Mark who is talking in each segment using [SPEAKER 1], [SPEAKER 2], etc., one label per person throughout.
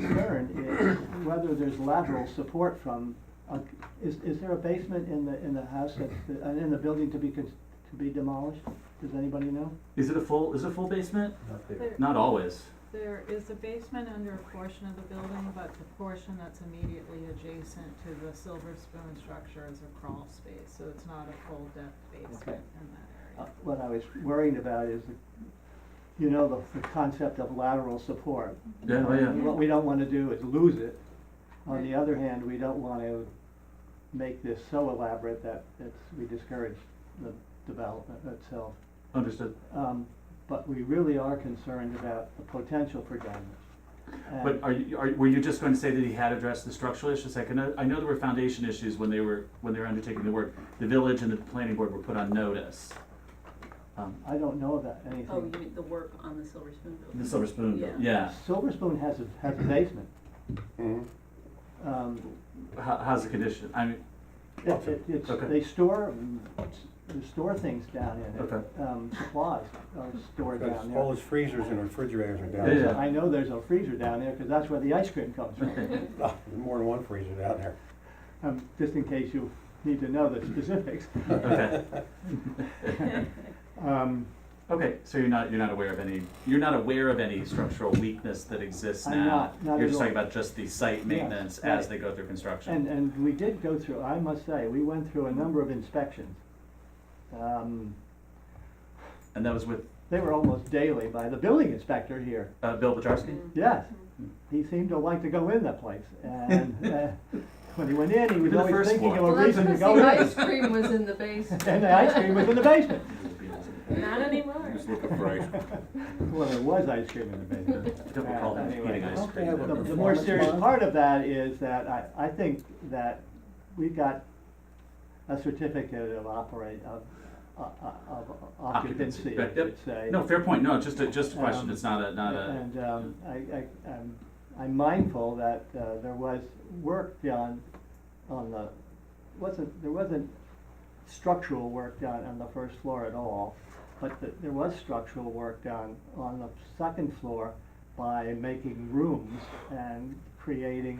[SPEAKER 1] concern is whether there's lateral support from, a- is, is there a basement in the, in the house that's, uh, in the building to be, cons- to be demolished? Does anybody know?
[SPEAKER 2] Is it a full, is it a full basement?
[SPEAKER 3] Not there.
[SPEAKER 4] There-
[SPEAKER 2] Not always.
[SPEAKER 4] There is a basement under a portion of the building, but the portion that's immediately adjacent to the Silver Spoon structure is a crawl space, so it's not a full depth basement in that
[SPEAKER 1] Uh,
[SPEAKER 2] Oh,
[SPEAKER 4] area.
[SPEAKER 1] What I was worried about is, the- you know, the, the concept of lateral support.
[SPEAKER 2] Yeah, oh, yeah.
[SPEAKER 1] And What we don't wanna do is lose it. On the
[SPEAKER 4] Right.
[SPEAKER 1] other hand, we don't wanna make this so elaborate that it's, we discourage the development itself.
[SPEAKER 2] Understood.
[SPEAKER 1] Um, but we really are concerned about the potential for damage. And-
[SPEAKER 2] But are you, are, were you just going to say that he had addressed the structural issues? Like, I know, I know there were foundation issues when they were, when they were undertaking the work. The village and the planning board were put on notice. Um,
[SPEAKER 1] I don't know about
[SPEAKER 5] Oh,
[SPEAKER 1] anything.
[SPEAKER 5] you mean the work on the Silver Spoon building?
[SPEAKER 2] The Silver Spoon,
[SPEAKER 5] Yeah.
[SPEAKER 2] yeah.
[SPEAKER 1] Silver Spoon has a, has a basement.
[SPEAKER 3] Mm-hmm.
[SPEAKER 1] Um,
[SPEAKER 2] How, how's the condition? I mean,
[SPEAKER 1] it- it- it's,
[SPEAKER 2] Okay.
[SPEAKER 1] they store, they store things down in it.
[SPEAKER 2] Okay.
[SPEAKER 1] Um, supplies are stored
[SPEAKER 3] Because
[SPEAKER 1] down
[SPEAKER 3] all
[SPEAKER 1] there.
[SPEAKER 3] those freezers and refrigerators are down
[SPEAKER 2] Yeah, yeah.
[SPEAKER 3] there.
[SPEAKER 1] I know there's a freezer down there, cause that's where the ice cream comes from.
[SPEAKER 3] Oh, there's More than one freezer down there.
[SPEAKER 1] Um, just in case you need to know the specifics.
[SPEAKER 2] okay.
[SPEAKER 1] Um,
[SPEAKER 2] Okay, so you're not, you're not aware of any, you're not aware of any structural weakness that exists now?
[SPEAKER 1] I'm not- not
[SPEAKER 2] You're
[SPEAKER 1] at
[SPEAKER 2] just talking
[SPEAKER 1] all.
[SPEAKER 2] about just the site maintenance
[SPEAKER 1] right.
[SPEAKER 2] as they go through construction?
[SPEAKER 1] And, uh, and we did go through, I must say, we went through a number of inspections. Um,
[SPEAKER 2] And that was with,
[SPEAKER 1] They were almost daily by the building inspector here.
[SPEAKER 2] uh, Bill Hmm. Bajarski?
[SPEAKER 1] Yes, he seemed to like to go in that place. And uh, when he went in, he was
[SPEAKER 2] The
[SPEAKER 1] always
[SPEAKER 2] first
[SPEAKER 1] thinking
[SPEAKER 2] one.
[SPEAKER 1] of a
[SPEAKER 6] Well, that's
[SPEAKER 1] reason to
[SPEAKER 6] because
[SPEAKER 1] go
[SPEAKER 6] the ice
[SPEAKER 1] in.
[SPEAKER 6] cream was in the basement.
[SPEAKER 1] And the ice cream was in the basement.
[SPEAKER 5] Not anymore.
[SPEAKER 7] Just looking for ice cream.
[SPEAKER 1] Well, there was ice cream in the basement.
[SPEAKER 2] Don't recall them
[SPEAKER 1] Anyway.
[SPEAKER 2] eating ice
[SPEAKER 3] Don't they
[SPEAKER 2] cream.
[SPEAKER 3] have a
[SPEAKER 1] The,
[SPEAKER 2] though.
[SPEAKER 1] the more serious
[SPEAKER 3] Performance bond?
[SPEAKER 1] part of that is that I, I think that we've got a certificate of operate, of, of of occupancy, I
[SPEAKER 2] right, yep.
[SPEAKER 1] should say.
[SPEAKER 2] No, fair point, no, just a, just a question,
[SPEAKER 1] Um,
[SPEAKER 2] it's not a, not a,
[SPEAKER 1] And um, I, I, I'm, I'm mindful that uh, there was work done on the, wasn't, there wasn't structural work done on the first floor at all, but th- there was structural work done on the second floor by making rooms and creating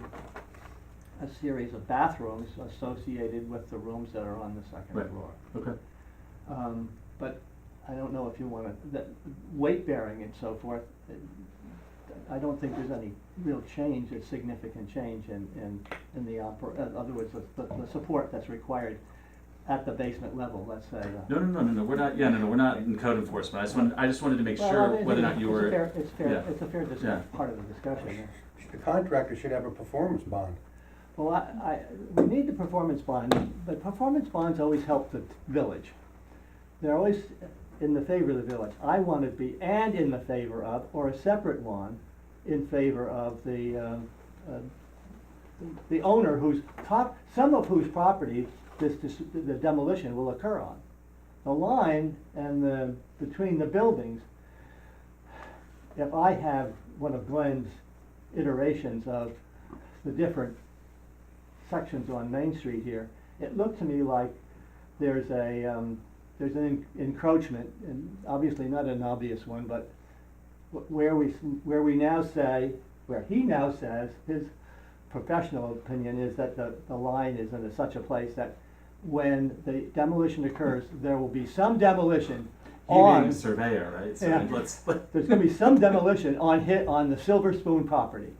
[SPEAKER 1] a series of bathrooms associated with the rooms that are on the
[SPEAKER 2] Right.
[SPEAKER 1] second floor.
[SPEAKER 2] okay.
[SPEAKER 1] Um, but I don't know if you wanna, that, weight bearing and so forth, uh, I don't think there's any real change or significant change in, in, in the oper, in other words, the, the, the support that's required at the basement level, let's say. uh,
[SPEAKER 2] No, no, no, no, no, we're not, yeah, no, no, we're not in code enforcement, I just wanted, I just wanted to make
[SPEAKER 1] Well, I
[SPEAKER 2] sure
[SPEAKER 1] mean,
[SPEAKER 2] whether or not you
[SPEAKER 1] it's a
[SPEAKER 2] were.
[SPEAKER 1] fair- It's fair,
[SPEAKER 2] yeah.
[SPEAKER 1] it's a fair
[SPEAKER 2] Yeah.
[SPEAKER 1] dis- part of the discussion.
[SPEAKER 3] The contractor should have a performance bond.
[SPEAKER 1] Well, I, I, we need the performance bond, but performance bonds always help the village. They're always in the favor of the village. I want to be and in the favor of, or a separate one, in favor of the, um, uh, the owner whose top, some of whose property this, dis- the demolition will occur on. The line and the, between the buildings, if I have one of Glenn's iterations of the different sections on Main Street here, it looked to me like there's a, um, there's an en- encroachment, and obviously not an obvious one, but wh- where we, s- where we now say, where he now says, his professional opinion is that the, the line is in such a place that when the demolition occurs, there will be some demolition
[SPEAKER 2] He being
[SPEAKER 1] on,
[SPEAKER 2] a surveyor, right, so
[SPEAKER 1] Yeah.
[SPEAKER 2] let's, let-
[SPEAKER 1] there's gonna be some demolition on hit, on the Silver Spoon property.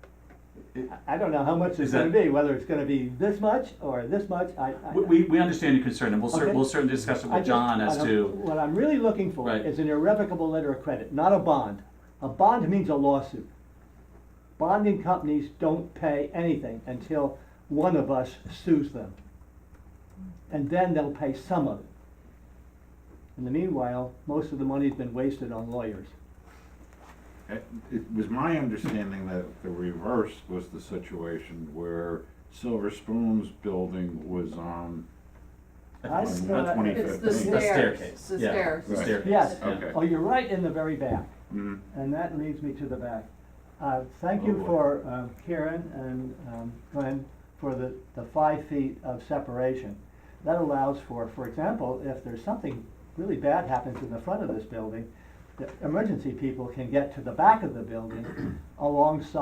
[SPEAKER 2] it-
[SPEAKER 1] I don't know how much
[SPEAKER 2] Is
[SPEAKER 1] it's gonna
[SPEAKER 2] that-
[SPEAKER 1] be, whether it's gonna be this much or this much, I, I.
[SPEAKER 2] we- we, we understand your concern, and we'll cer-
[SPEAKER 1] Okay.
[SPEAKER 2] we'll certainly discuss it
[SPEAKER 1] I
[SPEAKER 2] with
[SPEAKER 1] just-
[SPEAKER 2] John as
[SPEAKER 1] I don't-
[SPEAKER 2] to,
[SPEAKER 1] What I'm really looking for
[SPEAKER 2] Right.
[SPEAKER 1] is an irrevocable letter of credit, not a bond. A bond means a lawsuit. Bonding companies don't pay anything until one of us sues them. And then they'll pay some of it. In the meanwhile, most of the money's been wasted on lawyers.
[SPEAKER 7] It Uh, it was my understanding that the reverse was the situation where Silver Spoon's building was on,
[SPEAKER 1] I
[SPEAKER 7] on
[SPEAKER 1] thought-
[SPEAKER 7] twenty fifteen.
[SPEAKER 6] It's the
[SPEAKER 2] The
[SPEAKER 6] stairs,
[SPEAKER 2] staircase,
[SPEAKER 6] the
[SPEAKER 2] yeah.
[SPEAKER 6] stairs.
[SPEAKER 2] The
[SPEAKER 7] Right.
[SPEAKER 2] staircase,
[SPEAKER 1] Yes.
[SPEAKER 2] yeah.
[SPEAKER 7] Okay.
[SPEAKER 1] Oh, you're right in the very back.
[SPEAKER 7] Mhm.
[SPEAKER 1] And that leads me to the back. Uh, Thank
[SPEAKER 2] Oh,
[SPEAKER 1] you
[SPEAKER 2] boy.
[SPEAKER 1] for um, Karen and um, Glenn for the, the five feet of separation. That allows for, for example, if there's something really bad happens in the front of this building, the emergency people can get to the back of the building alongside